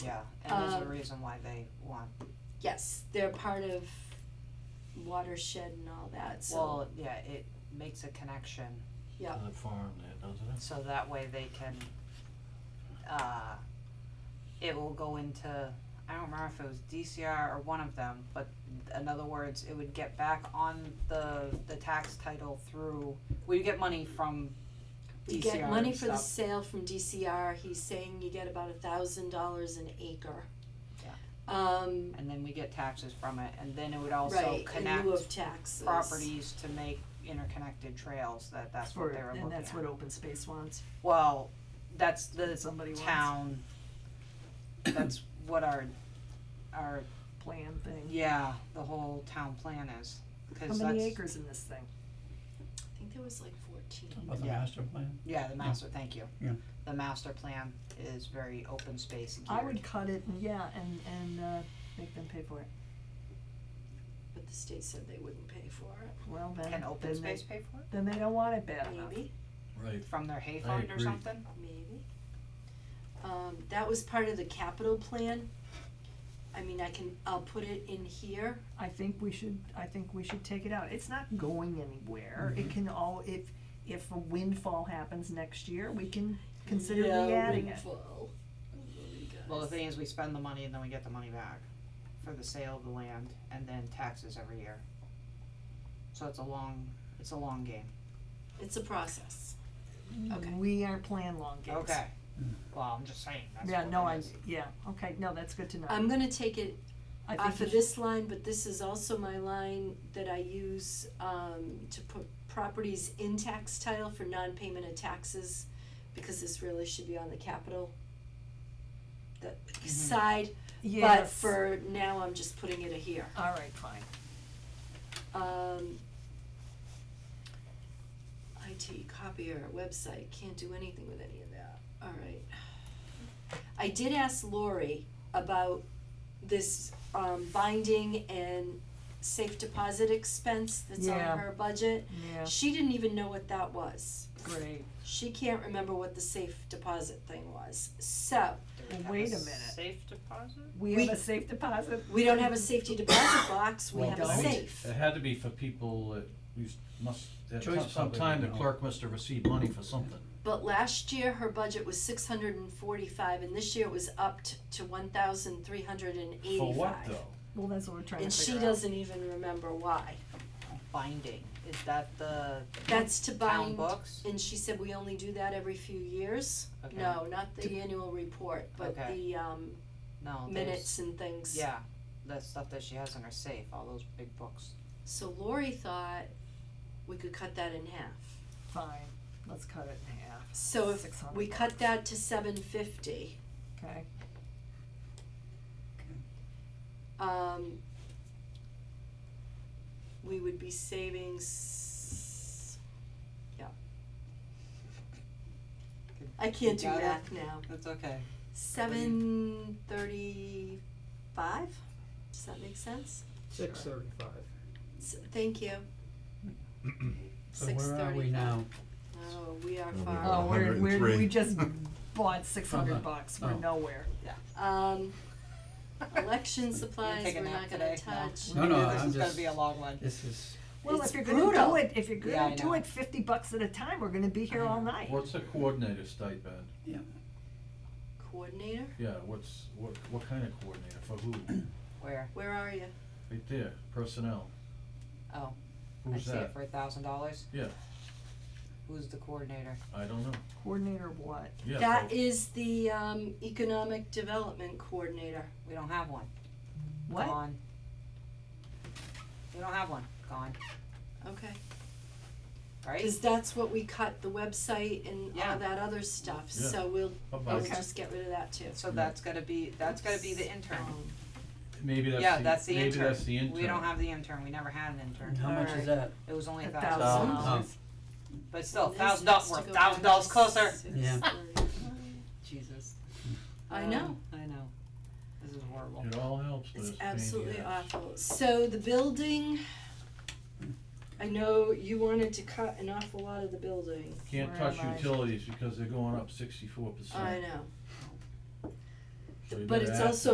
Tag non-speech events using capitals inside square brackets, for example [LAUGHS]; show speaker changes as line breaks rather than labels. yeah, and there's a
Um,
reason why they want,
Yes, they're part of watershed and all that, so,
well, yeah, it makes a connection,
yeah,
the farm there, doesn't it?
so that way they can, uh, it will go into, I don't remember if it was DCR or one of them, but in other words, it would get back on the, the tax title through, we get money from
we
DCR
get money
and
for the
stuff.
sale from DCR, he's saying you get about a thousand dollars an acre.
Yeah.
Um,
and then we get taxes from it, and then it would also
right, in
connect
lieu of taxes.
properties to make interconnected trails, that, that's what
For-
they were looking at.
And that's what open space wants,
Well, that's the
somebody wants
town, that's what our, our,
plan thing.
yeah, the whole town plan is,
How
cause
many
that's,
acres in this thing?
I think there was like fourteen.
About the
Yeah.
master plan?
yeah, the master, thank you.
Yeah.
The master plan is very open space
I
geared,
would cut it and, yeah, and, and, uh, make them pay for it.
But the state said they wouldn't pay for it,
Well, then,
can open
then they,
space pay for it,
then they don't want it bad enough.
maybe,
Right.
from their hay fund or
agree.
something?
maybe. Um, that was part of the capital plan. I mean, I can, I'll put it in here,
I think we should, I think we should take it out. It's not going anywhere. It can all, if, if a windfall happens next year, we can consider
Yeah,
re-adding it.
windfall. Oh, you
Well, the
guys.
thing is, we spend the money and then we get the money back for the sale of the land and then taxes every year. So it's a long, it's a long game.
It's a process. Okay.
We are plan long games.
Okay. Well, I'm just saying, that's
Yeah,
what
no,
it
I,
is.
yeah, okay, no, that's good to know.
I'm gonna take it
I think
off
we
of
should-
this line, but this is also my line that I use um to put properties in tax title for non-payment of taxes, because this really should be on the capital. The side, but
Mm-hmm. Yes.
for now, I'm just putting it here,
All right, fine.
um. IT, copier, website, can't do anything with any of that, alright. I did ask Lori about this um binding and safe deposit expense that's on
Yeah.
her budget.
Yeah,
She didn't even know what that was.
great.
She can't remember what the safe deposit thing was. So,
Do we
Well,
have a
wait a minute.
Safe deposit?
We
We-
have a safe deposit?
we don't have a safety deposit box, we
Well,
have a
don't.
safe.
It had to be for people that used, must, at
Choice
some- some
public,
time the
no.
clerk must have received money for something.
But last year, her budget was six hundred and forty-five, and this year it was upped to one thousand three hundred and eighty-five.
For what though?
Well, that's what we're trying to
And she
figure out.
doesn't even remember why.
Binding, is that the
That's to
town
bind,
books?
and she said we only do that every few years.
Okay.
No, not the annual report, but
Okay.
the um
No, there's-
minutes and things.
Yeah, the stuff that she has in her safe, all those big books.
So Lori thought we could cut that in half.
Fine, let's cut it in half.
So if
Six
we
hundred,
cut that to seven fifty,
okay?
um we would be saving s- yeah. I can't do
You got it?
math now.
That's okay.
Seven thirty-five, does that make sense?
Six thirty-five.
S- Thank
[CLEARS THROAT]
you.
So where are we now?
Oh, we are
Oh, we
far.
are.
Oh, we're, we're, we
103.
[LAUGHS]
just bought six hundred bucks, we're
Oh.
nowhere.
[LAUGHS]
Um, election supplies,
take a
we're
nap
not gonna
today? No.
touch.
No, no,
This
I'm
is gonna
just,
be a long one.
this is,
Well,
It's
if you're gonna
brutal.
do it, if you're
Yeah, I
gonna do
know.
it fifty bucks at a time, we're gonna be here all night.
What's a coordinator stipend?
Coordinator,
Yeah, what's, what, what kind of coordinator, for
[CLEARS THROAT]
who?
Where?
where are you?
Right there, personnel.
Oh, I
Who's
see it
that?
for a thousand dollars?
Yeah.
Who's the coordinator?
I don't know.
Coordinator of what?
Yeah,
That
so-
is the, um, economic development coordinator.
We don't have one.
What?
Gone. We don't have one. Gone.
Okay.
Right?
Cause that's what we cut, the website and
Yeah.
all that other stuff,
Yeah.
so we'll,
Bye-bye.
we'll
Okay.
just get rid of that too.
So that's gotta be, that's gotta be the intern.
Um,
Maybe that's the,
Yeah, that's the
maybe
intern.
that's the intern.
We don't have the intern. We never had an intern.
and how much is that?
It was only
A
a
thousand.
thousand
Thousand.
dollars.
Um,
Oh.
But still,
this
thousand
has
dollars,
to
we're a
go
thousand
back
dollars
to
closer.
six
Yeah.
thirty-five.
[LAUGHS] Jesus.
I
Um,
know.
I know. This is horrible.
It all helps, but
It's
it's a pain in the
absolutely
ass.
awful. So the building, I know you wanted to cut an awful lot of the building.
Can't
Where
touch
am I?
utilities because they're going up sixty-four percent.
I know.
So you
But
gotta
it's
add-
also